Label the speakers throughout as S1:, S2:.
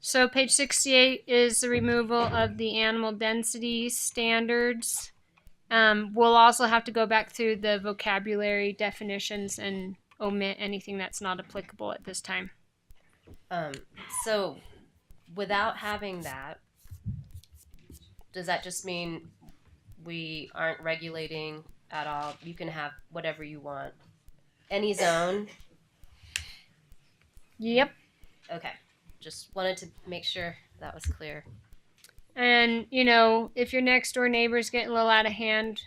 S1: So page 68 is the removal of the animal density standards. Um, we'll also have to go back through the vocabulary definitions and omit anything that's not applicable at this time.
S2: Um, so without having that, does that just mean we aren't regulating at all? You can have whatever you want. Any zone?
S1: Yep.
S2: Okay. Just wanted to make sure that was clear.
S1: And, you know, if your next door neighbor's getting a little out of hand,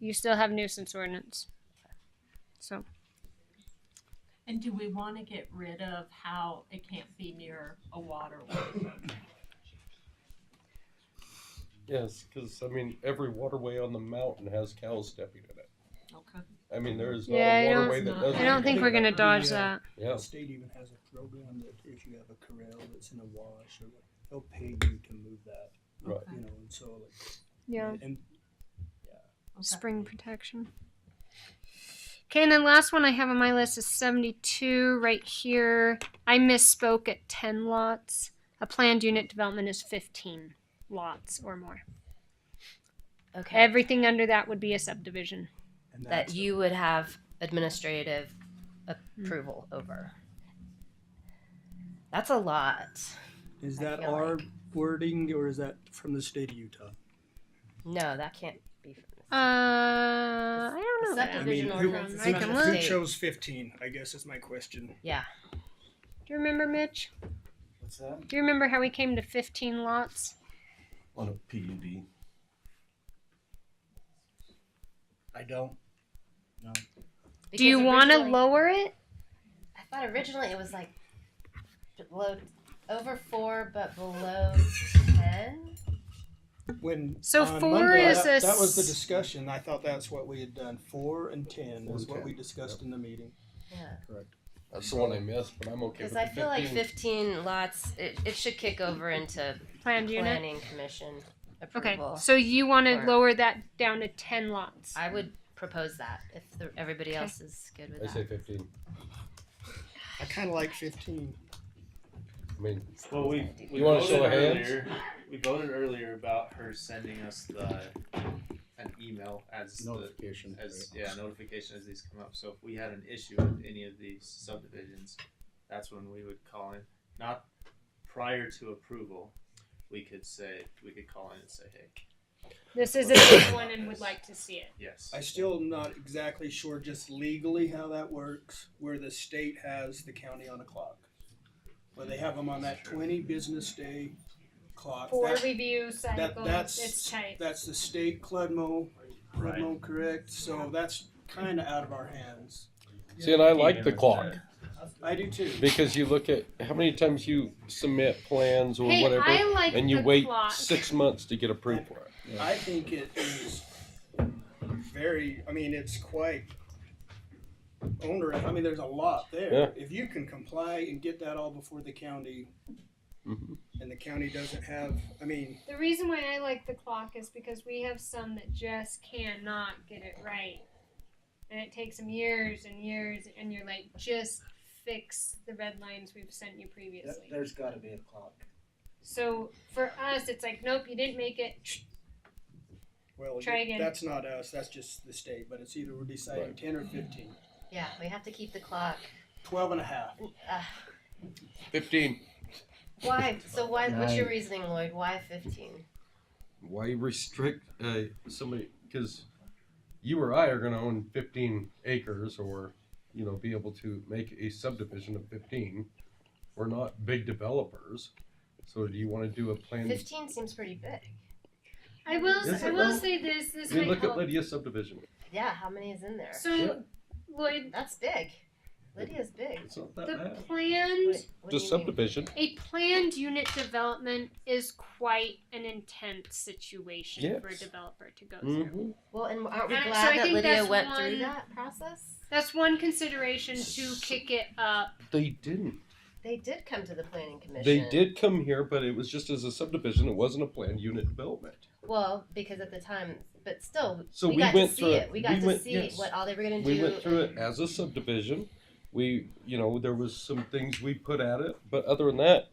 S1: you still have nuisance ordinance. So,
S3: And do we want to get rid of how it can't be near a waterway?
S4: Yes, because I mean, every waterway on the mountain has cows stepping in it.
S3: Okay.
S4: I mean, there is not
S1: Yeah, I
S4: a
S1: don't-
S4: waterway that
S3: I
S4: doesn't.
S1: I don't think we're going to dodge that.
S4: Yeah,
S5: The state even has a program that if you have a corral that's in a wash, or what, they'll pay you to move that,
S4: right.
S5: you know, and so like.
S1: Yeah.
S5: And
S3: Okay.
S1: Spring protection. Okay, and then last one I have on my list is 72 right here. I misspoke at 10 lots. A planned unit development is 15 lots or more.
S2: Okay.
S1: Everything under that would be a subdivision.
S5: and
S2: that
S5: that's,
S2: you would have administrative
S1: Hmm.
S2: approval over. That's a lot.
S5: is
S2: I
S5: that
S2: feel
S5: our wording or is that from the state of Utah?
S2: No, that can't be. From
S1: Uh, I don't know.
S2: The
S1: that.
S5: I
S2: subdivision
S5: mean,
S2: Provisional
S5: who,
S2: ordinance
S1: is from the
S5: who
S2: state.
S5: chose fifteen, I guess is my question.
S2: yeah.
S1: Do you remember, Mitch?
S6: What's that?
S1: Do you remember how we came to 15 lots?
S6: On a PUD. I don't. No.
S1: Do you
S2: Because
S1: want to
S2: originally-
S1: lower it?
S2: I thought originally it was like below, over four but below ten.
S5: When.
S1: So
S5: on
S1: four
S5: Monday,
S1: is
S5: that-
S1: a
S5: That was the
S1: s-
S5: discussion, I thought that's what we had done, four and ten
S6: Four
S5: is
S6: and
S5: what
S6: 10,
S5: we discussed in the meeting.
S2: Yeah.
S4: That's the one I missed, but I'm okay
S2: Because
S4: with the
S2: I feel like
S4: 15.
S2: fifteen lots, it, it should kick over into
S1: Planned unit.
S2: planning commission
S1: Okay,
S2: approval.
S1: so you want to
S2: Or-
S1: lower that down to 10 lots.
S2: I would propose that if the, everybody
S1: Okay.
S2: else is good with
S4: I
S2: that.
S4: say 15.
S5: I kinda like fifteen.
S4: I mean,
S7: Well, we, we
S4: You wanna show of
S7: voted
S4: hands?
S7: earlier. We voted earlier about her sending us the an email as the
S6: Notification.
S7: as yeah notification as these come up. So if we had an issue with any of these subdivisions, that's when we would call in. Not prior to approval, we could say we could call in and say, hey,
S1: This is a big one and would like to see it.
S7: yes.
S5: I still am not exactly sure just legally how that works, where the state has the county on a clock. Where they have them on that twenty business day clock.
S1: Four
S5: That-
S1: review
S5: that-
S1: cycle. It's
S5: That's,
S1: tight.
S5: that's the state CLEDMO,
S7: Right.
S5: CLEDMO correct, so that's kinda out of our hands.
S4: see, and I like
S7: Even
S4: the
S7: with
S4: clock
S7: that.
S5: I do too.
S4: because you look at how many times you submit plans or
S1: Hey,
S4: whatever,
S1: I like
S4: and you
S1: the
S4: wait
S1: clock.
S4: six months to get approved for it.
S5: I think it is very, I mean, it's quite onerous. I mean, there's a lot there. If you can comply and get that all before the county,
S4: Mhm.
S5: and the county doesn't have, I mean,
S1: The reason why I like the clock is because we have some that just cannot get it right. And it takes them years and years, and you're like, just fix the red lines we've sent you previously.
S6: There's gotta be a clock.
S1: So for us, it's like, nope, you didn't make it.
S5: well,
S1: Try again.
S5: that's not us, that's just the state, but it's either we're deciding
S4: Right.
S5: ten or fifteen.
S2: Yeah, we have to keep the clock.
S5: Twelve and a half.
S4: 15.
S2: Why? So why? What's your
S6: Right.
S2: reasoning, Lloyd? Why fifteen?
S4: Why restrict uh, somebody? Because you or I are going to own 15 acres, or you know, be able to make a subdivision of 15. We're not big developers, so do you want to do a plan?
S2: Fifteen seems pretty big.
S1: I will.
S4: Yes,
S1: I
S4: it
S1: will
S4: will.
S1: say this. This
S4: I mean,
S1: might
S4: look at
S1: help.
S4: Lydia's subdivision.
S2: Yeah, how many is in there?
S1: So, Lloyd,
S2: That's big. Lydia's big.
S4: It's not that
S1: the
S4: bad.
S6: Uh,
S1: planned
S2: What, what do
S4: Just
S2: you mean?
S4: subdivision.
S1: A planned unit development is quite an intense situation for a
S4: Yes.
S1: developer to go through.
S4: Mhm.
S2: Well, and aren't we
S1: Uh, so
S2: glad
S1: I
S2: that
S1: think
S2: Lydia
S1: that's
S2: went
S1: one-
S2: through that process?
S1: That's one consideration to kick it up.
S4: They didn't.
S2: They did come to the planning commission.
S4: They did come here, but it was just as a subdivision. It wasn't a planned unit development.
S2: Well, because at the time, but still,
S4: So
S2: we,
S4: we
S2: got
S4: went
S2: to
S4: through
S2: see
S4: it.
S2: it. We got
S4: We
S2: to
S4: went-
S2: see
S4: yes.
S2: what all they were going to do.
S4: We went through it as a subdivision. We, you know, there was some things we put at it, but other than that,